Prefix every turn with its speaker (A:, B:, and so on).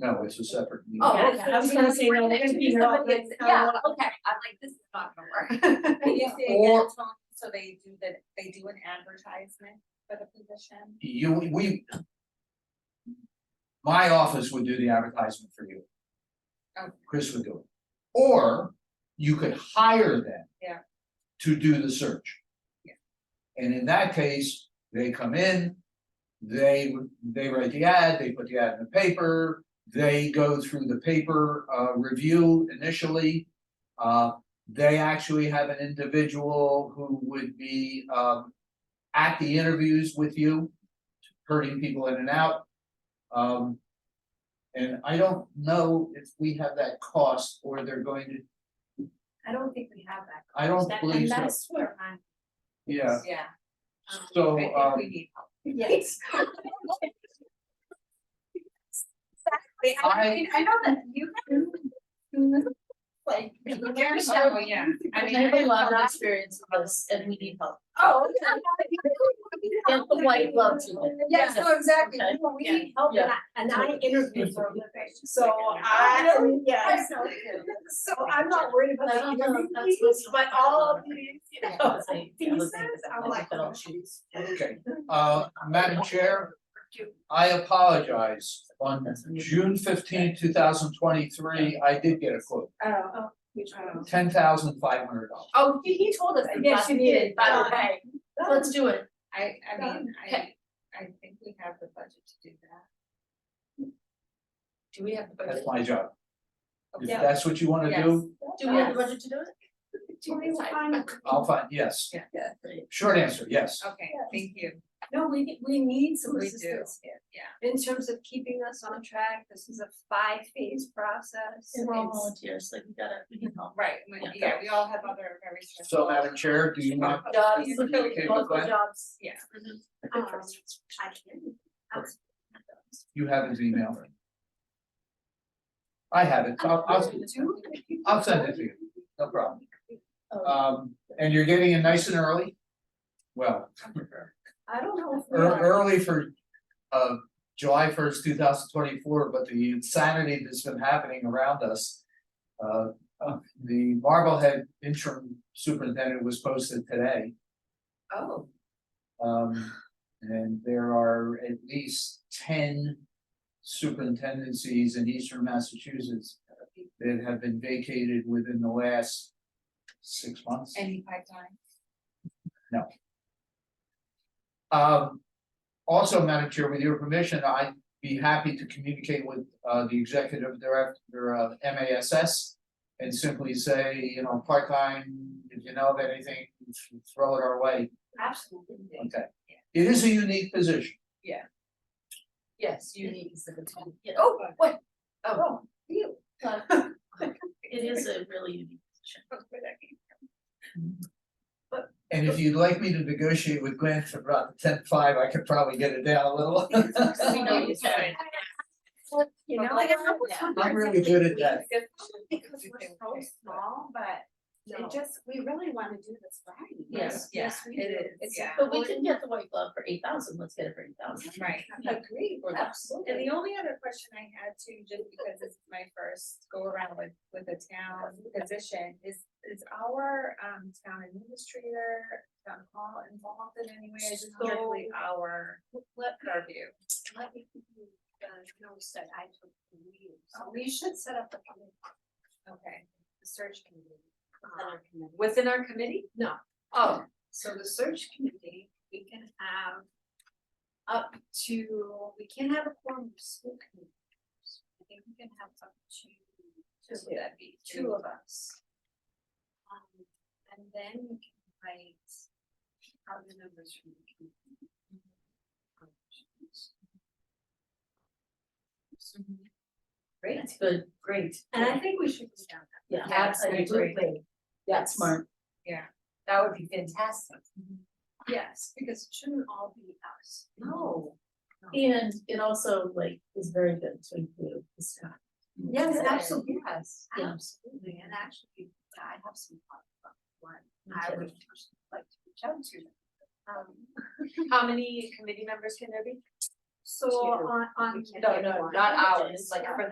A: No, it's a separate meeting.
B: Oh,
C: Yeah,
B: okay,
C: so
B: I was
C: we
B: gonna
C: don't
B: say, no,
C: work
B: it'd be
C: there,
B: wrong,
C: somebody gets-
B: it's not
C: Yeah,
B: allowed.
C: okay, I'm like, this is not gonna work.
D: Can you say
A: Or-
D: again, Tom, so they do that, they do an advertisement for the position?
A: You, we. My office would do the advertisement for you.
D: Okay.
A: Chris would do it. Or you could hire them.
D: Yeah.
A: To do the search.
D: Yeah.
A: And in that case, they come in, they, they write the ad, they put the ad in the paper, they go through the paper, uh, review initially. Uh, they actually have an individual who would be, um, at the interviews with you, herding people in and out. Um, and I don't know if we have that cost or they're going to,
C: I don't think we have that.
A: I don't believe so,
C: That's where I'm.
A: yeah,
D: Yeah.
A: so,
D: I think
A: um,
D: we need help.
C: Yes. Exactly,
A: I-
C: I mean, I know that you can. Like.
D: Oh, yeah, I mean, I would love that.
B: experience with this and we need help.
C: Oh.
B: Get the white glove to it.
C: Yes, no, exactly,
B: Okay.
C: No, we need help and I, and I interview for a living, so I,
B: Really?
C: yes.
D: So, yeah.
C: So I'm not worried about
B: I don't
C: the
B: know if
C: interview
B: that's
C: piece, but
B: what's-
C: all of these, you
B: Yeah,
C: know,
B: I think- I
C: pieces,
B: think- I
C: I'm
B: think
C: like.
B: that I'll choose.
A: okay. Uh, Madam Chair, I apologize, on June fifteenth, two thousand twenty-three, I did get a quote,
C: Oh.
A: ten thousand five hundred dollars.
C: Oh, he, he told us, yes, you did, by the way.
B: Let's do it.
D: I, I mean, I,
B: Okay.
D: I think we have the budget to do that.
B: Do we have the budget?
A: That's my job. If
D: Yeah.
A: that's what you wanna do,
B: Do we have the budget to do it?
C: Do we find-
A: I'll find, yes,
B: Yeah.
A: short answer, yes.
D: Okay, thank you.
C: No, we, need- we need some
D: We do,
C: assistance here.
D: yeah.
C: In terms of keeping us on track, this is a five-phase process.
B: And we're all
C: It's-
B: volunteers, like we gotta, we can help.
D: Right, we-
B: Yeah.
D: yeah, we all have other very.
A: So Madam Chair, do you want?
C: Oh,
B: Jobs,
A: You okay with
B: local
A: that?
B: jobs.
D: Yeah.
B: Mhm.
C: Um, I can.
A: You have his email. I have it, I'll, I'll,
C: Do-
A: I'll send it to you, no problem.
B: Oh.
A: Um, and you're getting in nice and early? Well,
C: I don't know if we
A: ear-
C: are.
A: early for, uh, July first, two thousand twenty-four, but the insanity that's been happening around us. Uh, uh, the Marblehead interim superintendent was posted today.
D: Oh,
A: Um, and there are at least ten superintendencies in eastern Massachusetts that have been vacated within the last six months.
D: any pipeline?
A: Um, also, Madam Chair, with your permission, I'd be happy to communicate with, uh, the executive director of MASS and simply say, you know, part-time, if you know of anything, throw it our way.
C: Absolutely.
A: Okay. It is a unique position.
B: Yes, you need to send it to me. Yeah.
C: Oh, wait,
B: Oh,
C: you.
B: it is a really unique position.
D: Oh,
A: And if you'd like me to negotiate with Glenn for about ten five, I could probably get it down a little.
B: We know you said.
C: You know,
D: Like,
C: like, I'm
B: yeah.
A: I'm really good at that.
C: because we're so small, but it just, we really wanna do this right.
B: Yes,
C: Yes, we do.
D: It is,
C: It's
D: yeah,
B: But we can get the white glove for eight thousand, let's get it for eight thousand.
D: right.
C: Agreed,
B: Or less.
D: And
C: absolutely.
D: the only other question I had too, just because this is my first go around with, with the town position, is, is our, um, town administrator, town hall involved in any way, is it strictly our, purview?
C: Let me give you, uh, notes that I took from you. So we should set up a committee,
D: Okay,
C: a search committee.
D: Within
C: uh, committee.
D: within our committee?
C: No,
D: Oh,
C: So the search committee, we can have up to, we can have a quorum of school committee. members. I think we can have up to
D: just would that be
C: two
D: two
C: of us. Um, and then we can invite other members from the community.
B: That's good, great.
C: And I think we should go down that.
B: Yeah,
C: Absolutely.
B: absolutely. That's smart.
C: That would be fantastic. Yes, because it shouldn't all be us.
B: No. And it also like is very good to include the staff.
C: Yes,
B: Yeah.
C: absolutely, yes,
B: Yeah.
C: absolutely, and actually, I have some thoughts about what
B: Me
C: I
B: too.
C: would like to reach out to. Um,
D: How many committee members can there be?
C: so on, on.
D: No, no, not ours, like
C: Yeah.
D: for